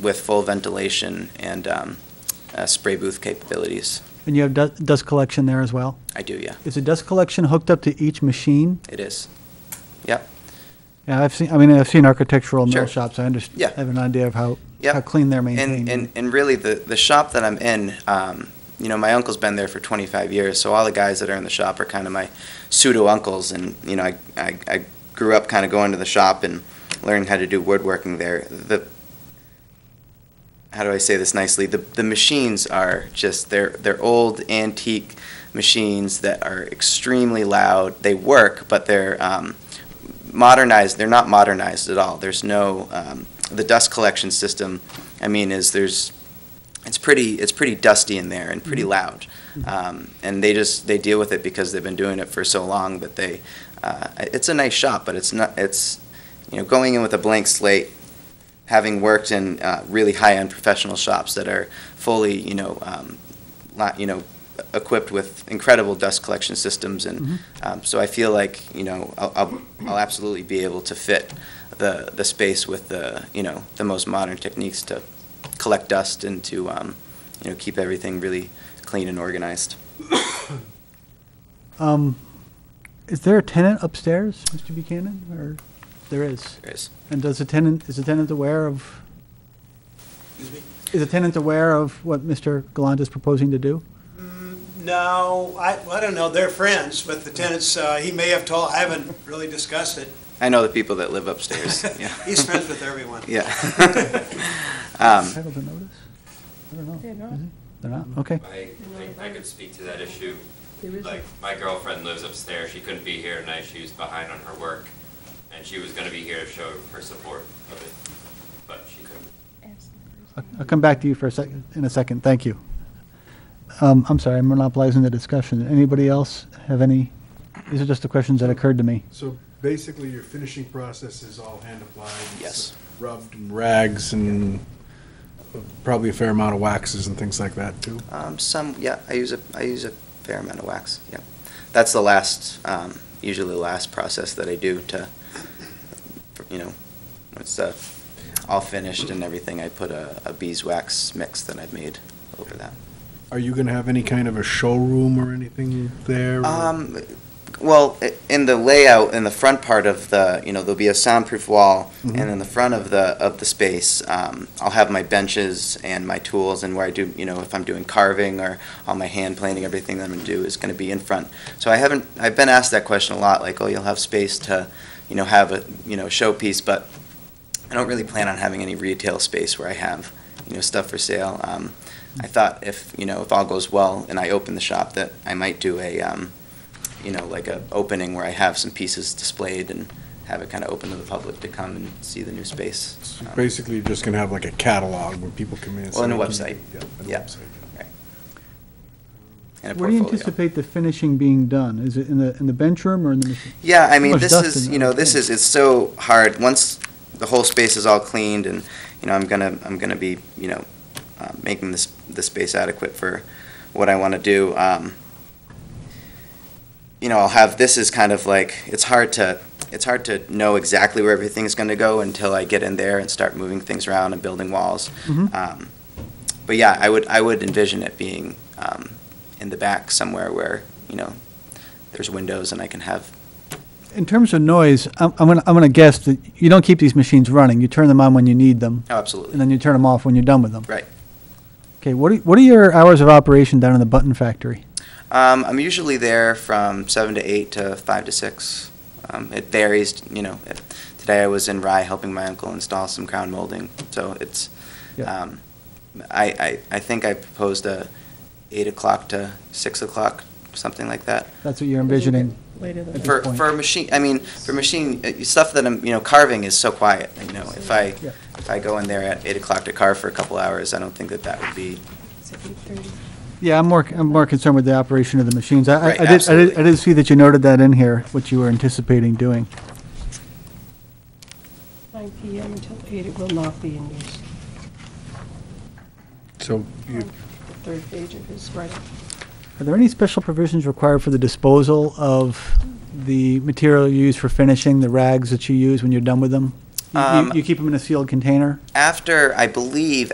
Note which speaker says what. Speaker 1: with full ventilation and um, uh, spray booth capabilities.
Speaker 2: And you have du- dust collection there as well?
Speaker 1: I do, yeah,
Speaker 2: Is the dust collection hooked up to each machine?
Speaker 1: it is. Yep,
Speaker 2: Yeah, I've seen, I mean, I've seen architectural mill
Speaker 1: Sure.
Speaker 2: shops, I
Speaker 1: Yeah.
Speaker 2: understand, have an idea of how,
Speaker 1: Yep.
Speaker 2: how clean they're
Speaker 1: and,
Speaker 2: maintained.
Speaker 1: and, and really, the, the shop that I'm in, um, you know, my uncle's been there for 25 years, so all the guys that are in the shop are kind of my pseudo-uncles, and, you know, I, I, I grew up kind of going to the shop and learning how to do woodworking there. The, how do I say this nicely? The, the machines are just, they're, they're old antique machines that are extremely loud. They work, but they're um, modernized. They're not modernized at all. There's no, um, the dust collection system, I mean, is there's, it's pretty, it's pretty dusty in there and pretty loud. Um, and they just, they deal with it because they've been doing it for so long that they, uh, it's a nice shop, but it's not, it's, you know, going in with a blank slate, having worked in uh, really high-end professional shops that are fully, you know, um, lot, you know, equipped with incredible dust collection systems, and um, so I feel like you know I'll, I'll, I'll absolutely be able to fit the the space with the you know the most modern techniques to collect dust and to um, you know keep everything really clean and organized.
Speaker 2: Um, Is there a tenant upstairs, Mr. Buchanan, or, there is?
Speaker 1: There's-
Speaker 2: And does the tenant, is the tenant aware of? Is the tenant aware of what Mr. Gallant is proposing to do?
Speaker 3: No, I, I don't know, they're friends, but the tenants, uh, he may have told, I haven't really discussed it.
Speaker 1: I know the people that live upstairs. yeah.
Speaker 3: He's friends with everyone.
Speaker 1: Yeah. Um,
Speaker 2: Entitled to notice? I don't know. They're not. They're not, okay.
Speaker 4: I, I, I could speak to that issue.
Speaker 5: There is
Speaker 4: Like, my girlfriend lives upstairs, she couldn't be here tonight, she was behind on her work, and she was gonna be here to show her support of it, but she couldn't.
Speaker 2: I'll- I'll come back to you for a second, in a second, thank you. Um, I'm sorry, I'm monopolizing the discussion. Anybody else have any, these are just the questions that occurred to me.
Speaker 6: So basically, your finishing process is all hand applied? it's uh,
Speaker 1: Yes.
Speaker 6: Rubbed and rags and probably a fair amount of waxes and things like that, too?
Speaker 1: Um, some, yeah, I use a, I use a fair amount of wax, yeah. That's the last, um, usually the last process that I do to, you know, once the, all finished and everything, I put a, a beeswax mix that I've made over that.
Speaker 6: Are you going to have any kind of a showroom or anything there? or-
Speaker 1: Um, well, i- in the layout, in the front part of the, you know, there'll be a soundproof wall, and in the front of the, of the space, um, I'll have my benches and my tools, and where I do, you know, if I'm doing carving or all my hand planing, everything that I'm gonna do is gonna be in front. So I haven't, I've been asked that question a lot, like, oh, you'll have space to, you know, have a, you know, showpiece, but I don't really plan on having any retail space where I have, you know, stuff for sale. Um, I thought if, you know, if all goes well and I open the shop, that I might do a, um, you know, like a opening where I have some pieces displayed and have it kind of open to the public to come and see the new space.
Speaker 6: So
Speaker 1: Um,
Speaker 6: Basically, you're just going to have like a catalog where people come in and say...
Speaker 1: Well, and a
Speaker 6: "I
Speaker 1: website.
Speaker 6: can-" Yeah,
Speaker 1: Yeah.
Speaker 6: and a website.
Speaker 1: and a
Speaker 2: Where do you
Speaker 1: portfolio.
Speaker 2: anticipate the finishing being done? Is it in the, in the bench room or in the machine?
Speaker 1: Yeah, I mean,
Speaker 2: much
Speaker 1: this
Speaker 2: dust
Speaker 1: is,
Speaker 2: in
Speaker 1: you
Speaker 2: there,
Speaker 1: know, this
Speaker 2: yeah.
Speaker 1: is, it's so hard, once the whole space is all cleaned and, you know, I'm gonna, I'm gonna be, you know, uh, making this, the space adequate for what I wanna do, um, you know, I'll have, this is kind of like, it's hard to, it's hard to know exactly where everything's gonna go until I get in there and start moving things around and building walls.
Speaker 2: Mhm.
Speaker 1: Um, But yeah, I would, I would envision it being, um, in the back somewhere where, you know, there's windows and I can have
Speaker 2: In terms of noise, I'm, I'm gonna, I'm gonna guess that you don't keep these machines running. You turn them on when you need them,
Speaker 1: Oh,
Speaker 2: and
Speaker 1: absolutely.
Speaker 2: then you turn them off when you're done with them.
Speaker 1: Right.
Speaker 2: Okay, what are, what are your hours of operation down in the button factory?
Speaker 1: Um, I'm usually there from seven to eight to five to six. Um, it varies, you know. It, today I was in Rye helping my uncle install some crown molding, so it's.
Speaker 2: Yeah.
Speaker 1: Um, I, I I think I proposed a eight o'clock to six o'clock, something like that.
Speaker 2: That's what you're envisioning?
Speaker 5: Later than
Speaker 2: At this
Speaker 1: For
Speaker 2: point.
Speaker 1: for a machine, I mean, for machine uh, stuff that I'm, you know, carving is so quiet. You know, if I
Speaker 2: Yeah.
Speaker 1: if I go in there at eight o'clock to carve for a couple hours, I don't think that that would be
Speaker 5: It's at 8:30.
Speaker 2: Yeah, I'm more, I'm more concerned with the operation of the machines. I- I,
Speaker 1: Right,
Speaker 2: I did, I did, I
Speaker 1: absolutely.
Speaker 2: did see that you noted that in here, what you were anticipating doing.
Speaker 5: 9 PM until 8, it will not be in use.
Speaker 6: So you,
Speaker 5: The third page of his writing.
Speaker 2: Are there any special provisions required for the disposal of the material you use for finishing, the rags that you use when you're done with them? You-
Speaker 1: Um,
Speaker 2: You you keep them in a sealed container?
Speaker 1: After, I believe,